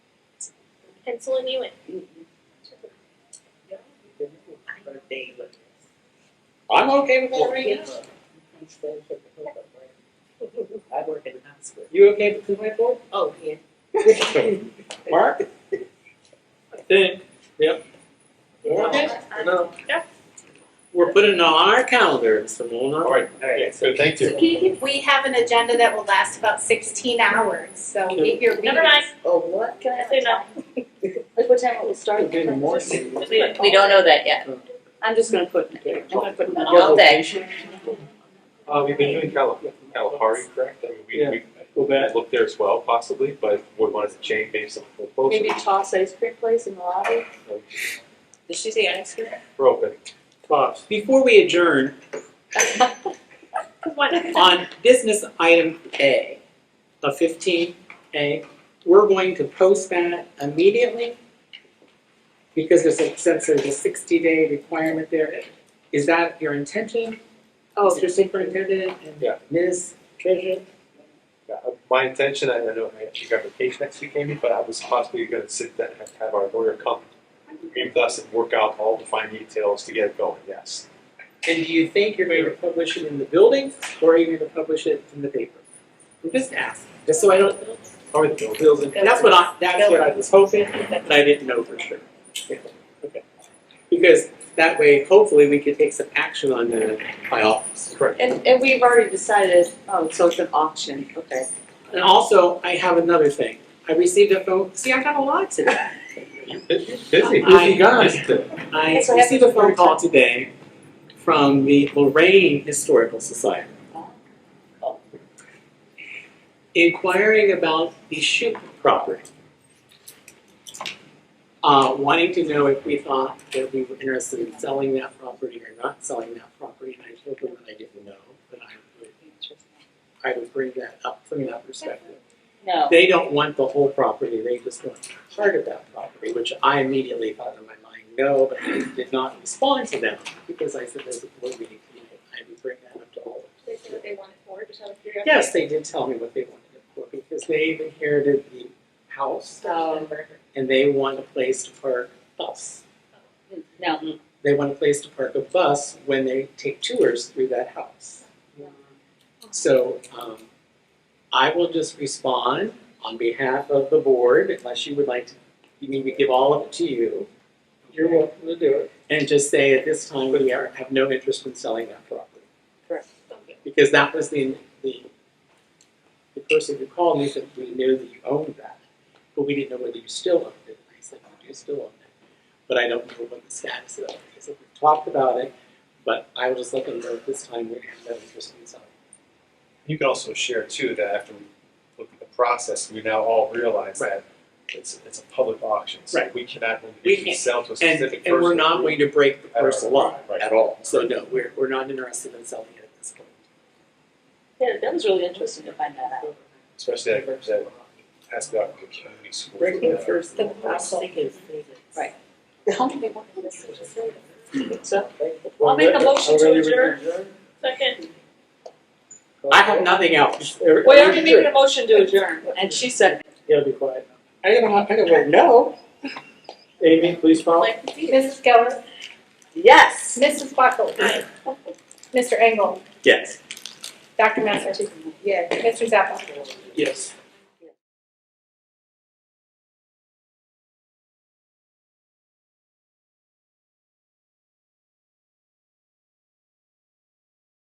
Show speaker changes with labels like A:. A: penciling you in.
B: I'm okay with that right now.
C: I work in the hospital.
B: You okay with two by four?
C: Oh, yeah.
B: Mark?
D: I think, yep.
B: We're
A: Yeah.
B: okay?
D: No.
B: We're putting it on our calendar, Mr. Molnar.
D: All right.
B: Alright, so
D: Good, thank you.
E: We have an agenda that will last about sixteen hours, so get your readings.
A: Never mind.
C: Oh, what?
F: Can I
A: Say no.
F: have a time? Like what time it will start?
B: It'll be in the morning.
A: We-
F: We don't know that yet. I'm just gonna put, I'm gonna put all day.
D: Uh, we've been doing Cali- Kalahari, correct? I mean, we, we
B: Go back.
D: looked there as well, possibly, but we wanted to change maybe something a little
F: Maybe
D: closer.
F: Toss Ice Cream Place in the lobby?
C: Did she say ice cream?
D: We're open.
B: Tops. Before we adjourn, on business item A, of fifteen A, we're going to post that immediately because there's a, since there's a sixty day requirement there. Is that your intention,
F: Oh,
B: Mr. Superintendent
D: Yeah.
B: and Ms. Treasurer?
D: Yeah, uh, My intention, I I know I actually got vacation next week, Amy, but I was possibly gonna sit down and have our lawyer come meet with us and work out all the fine details to get it going, yes.
B: And do you think you're going to publish it in the building or are you going to publish it in the paper? I'm just asking, just so I don't,
D: All right, Bill. Bill, then.
B: that's what I, that's what I was hoping, but I didn't know for sure. Okay. Because that way, hopefully, we can take some action on that by office.
D: Correct.
F: and, and we've already decided, oh, so it's an auction, okay.
B: And also, I have another thing. I received a phone, see, I got a lot today.
D: You busy, busy
B: I-
D: guys.
B: I
F: That's what
B: received a
F: happens
B: phone
F: when
B: call today from the Lorraine Historical Society. Inquiring about the Shoup property. Uh, wanting to know if we thought that we were interested in selling that property or not selling that property, and I told them that I didn't know, but I would, I would bring that up from that perspective.
F: No.
B: They don't want the whole property, they just want part of that property, which I immediately thought in my mind, no, but I did not respond to them because I said there's a board meeting tonight, I would bring that up to all of them.
A: They said what they wanted for, just out of curiosity.
B: Yes, they did tell me what they wanted it for because they inherited the house
F: So,
B: and they want a place to park bus.
F: no.
B: They want a place to park a bus when they take tours through that house. So um I will just respond on behalf of the board unless you would like to, you need to give all of it to you. You're welcome to do it. And just say at this time, we are have no interest in selling that property.
A: Okay.
B: Because that was the, the, the person who called me said, we knew that you owned that, but we didn't know whether you still owned it. And I said, I do still own it, but I don't know what the status of it is. So we talked about it, but I will just let them know at this time we have no interest in selling.
D: You can also share too that after we look at the process, we now all realize that it's it's a public auction, so
B: Right.
D: we cannot
B: We
D: individually
B: can't-
D: sell to a
B: And,
D: specific person.
B: and we're not going to break the
D: At all.
B: first law
D: Right.
B: at all. So no, we're, we're not interested in selling it at this point.
F: Yeah, that was really interesting to find that out.
D: Especially that, that has to be out in the community school.
B: Break the first
C: The
B: law.
F: Right. How many people can this is?
A: I'll make a motion to adjourn. Second.
B: I have nothing else. Wait,
C: Wait, I'm making a motion to adjourn.
F: And she said,
B: Yeah, be quiet. I don't, I don't want to know. Amy, please follow.
G: Mrs. Geller,
F: yes.
G: Mrs. Buckles,
A: Aye.
G: Mr. Engel,
B: Yes.
G: Dr. Messer,
F: Yeah.
G: Mr. Zappa.
B: Yes.